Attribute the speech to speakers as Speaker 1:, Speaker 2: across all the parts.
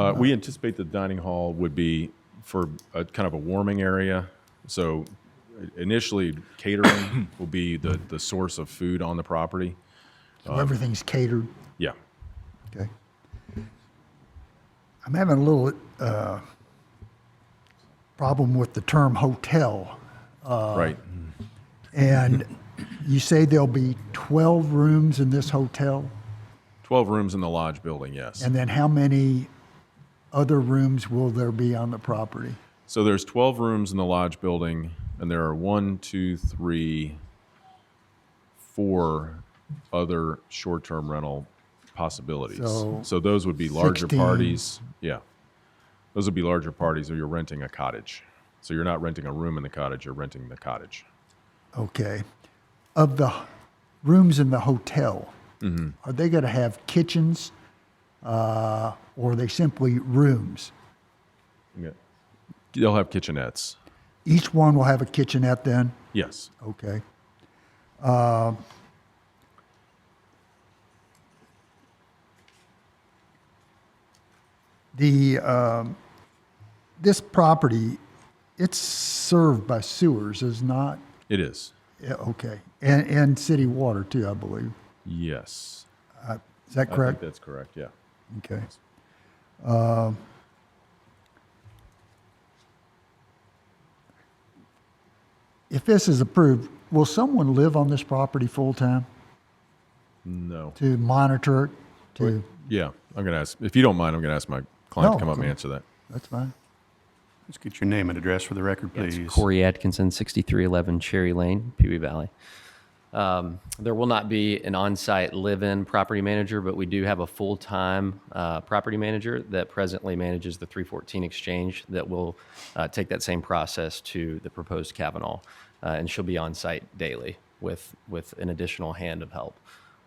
Speaker 1: Uh, We anticipate the dining hall would be for a kind of a warming area. So initially catering will be the, the source of food on the property.
Speaker 2: So everything's catered.
Speaker 1: Yeah.
Speaker 2: Okay. I'm having a little uh, problem with the term hotel.
Speaker 1: Right.
Speaker 2: And you say there'll be 12 rooms in this hotel?
Speaker 1: 12 rooms in the lodge building, yes.
Speaker 2: And then how many other rooms will there be on the property?
Speaker 1: So there's 12 rooms in the lodge building, and there are one, two, three, four other short-term rental possibilities.
Speaker 2: So
Speaker 1: So those would be larger
Speaker 2: 16.
Speaker 1: parties. Yeah. Those would be larger parties, or you're renting a cottage. So you're not renting a room in the cottage, you're renting the cottage.
Speaker 2: Okay. Of the h- rooms in the hotel, are they going to have kitchens uh, or are they simply rooms?
Speaker 1: Yeah. They'll have kitchenettes.
Speaker 2: Each one will have a kitchenette then?
Speaker 1: Yes.
Speaker 2: Okay. Um, The, um, this property, it's served by sewers, is not,
Speaker 1: It is.
Speaker 2: Yeah, okay, and, and city water too, I believe.
Speaker 1: Yes.
Speaker 2: Is that
Speaker 1: I think
Speaker 2: correct?
Speaker 1: that's correct, yeah.
Speaker 2: Okay. Um, If this is approved, will someone live on this property full-time?
Speaker 1: No.
Speaker 2: to monitor it, to,
Speaker 1: Yeah, I'm going to ask, if you don't mind, I'm going to ask my client to
Speaker 2: No,
Speaker 1: come up and
Speaker 2: cool.
Speaker 1: answer that.
Speaker 2: that's fine.
Speaker 3: Let's get your name and address for the record,
Speaker 4: It's
Speaker 3: please.
Speaker 4: Corey Atkinson, 6311 Cherry Lane, Pee Wee Valley. Um, there will not be an on site live in property manager, but we do have a full time uh, property manager that presently manages the 314 exchange that will uh, take that same process to the proposed Kavanaugh. Uh, and she'll be on site daily with, with an additional hand of help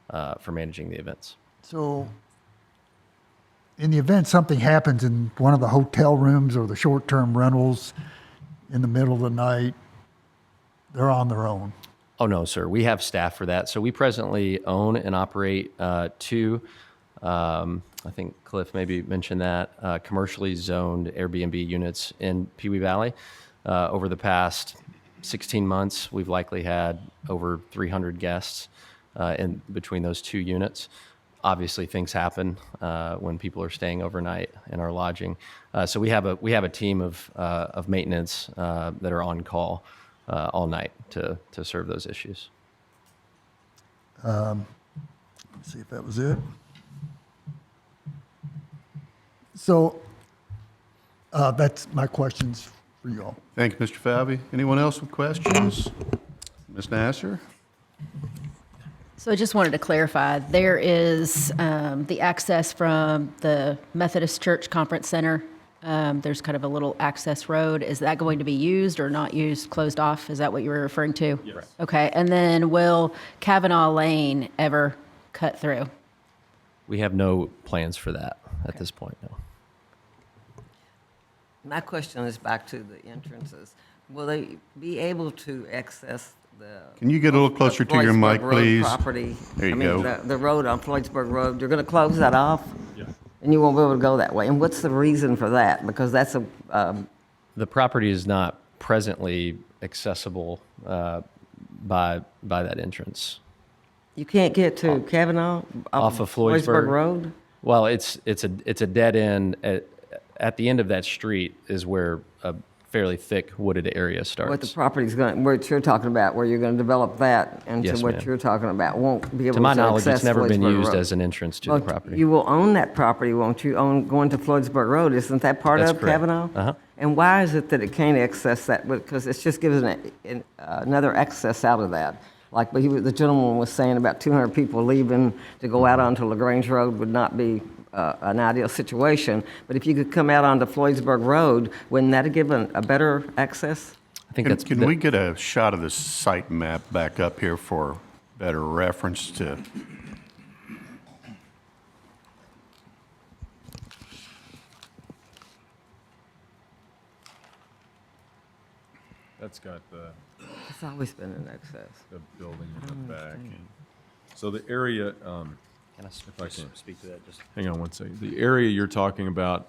Speaker 4: uh, for managing the events.
Speaker 2: So, in the event something happens in one of the hotel rooms or the short-term rentals in the middle of the night, they're on their own.
Speaker 4: Oh, no, sir. We have staff for that. So we presently own and operate uh, two, um, I think Cliff maybe mentioned that, uh, commercially zoned Airbnb units in Pee Wee Valley. Uh, over the past 16 months, we've likely had over 300 guests uh, in between those two units. Obviously, things happen uh, when people are staying overnight in our lodging. Uh, so we have a we have a team of uh, of maintenance uh, that are on call uh, all night to to serve those issues.
Speaker 2: Let's see if that was it. So, uh, that's my questions for you all.
Speaker 3: Thank you, Mr. Falvey. Anyone else with questions? Ms. Nasser?
Speaker 5: So I just wanted to clarify, there is um, the access from the Methodist Church Conference Center. Um, There's kind of a little access road. Is that going to be used or not used, closed off? Is that what you were referring to? Yes. Okay, and then will Kavanaugh Lane ever cut through?
Speaker 4: We have no plans for that at this point. No.
Speaker 6: My question is back to the entrances. Will they be able to access the?
Speaker 3: Can you get a little closer to your
Speaker 6: Floydsburg
Speaker 3: mic,
Speaker 6: Road
Speaker 3: please?
Speaker 6: Property.
Speaker 3: There you
Speaker 6: I mean,
Speaker 3: go.
Speaker 6: the- The road on Floydsburg Road, you're going to close that off? Yeah. And you won't be able to go that way? And what's the reason for that? Because that's a, um,
Speaker 4: The property is not presently accessible uh, by by that entrance.
Speaker 6: you can't get to Kavanaugh?
Speaker 4: Off of Floydsburg.
Speaker 6: Road?
Speaker 4: Well, it's it's a it's a dead end. At, at the end of that street is where a fairly thick wooded area starts.
Speaker 6: What the property's going, what you're talking about, where you're going to develop that into
Speaker 4: Yes,
Speaker 6: what
Speaker 4: ma'am.
Speaker 6: you're talking about, won't be able
Speaker 4: to
Speaker 6: to
Speaker 4: my
Speaker 6: access Floydsburg Road?
Speaker 4: knowledge, it's never been used as an entrance to
Speaker 6: Well,
Speaker 4: the property.
Speaker 6: You will own that property, won't you, on, going to Floydsburg Road? Isn't that part
Speaker 4: That's
Speaker 6: of
Speaker 4: correct.
Speaker 6: Kavanaugh?
Speaker 4: Uh-huh.
Speaker 6: And why is it that it can't access that? Because it's just giving it an- uh, another access out of that. Like he was- the gentleman was saying, about 200 people leaving to go out onto LaGrange Road would not be uh, an ideal situation. But if you could come out onto Floydsburg Road, wouldn't that have given a better access?
Speaker 4: I think
Speaker 3: Can,
Speaker 4: that's
Speaker 3: can
Speaker 4: that-
Speaker 3: we get a shot of the site map back up here for better reference to?
Speaker 1: That's got the.
Speaker 6: It's always been an access.
Speaker 1: the building in the back. So the area, um,
Speaker 4: Can I s-
Speaker 1: I
Speaker 4: just
Speaker 1: can.
Speaker 4: speak to that just
Speaker 1: hang on one second, the area you're talking about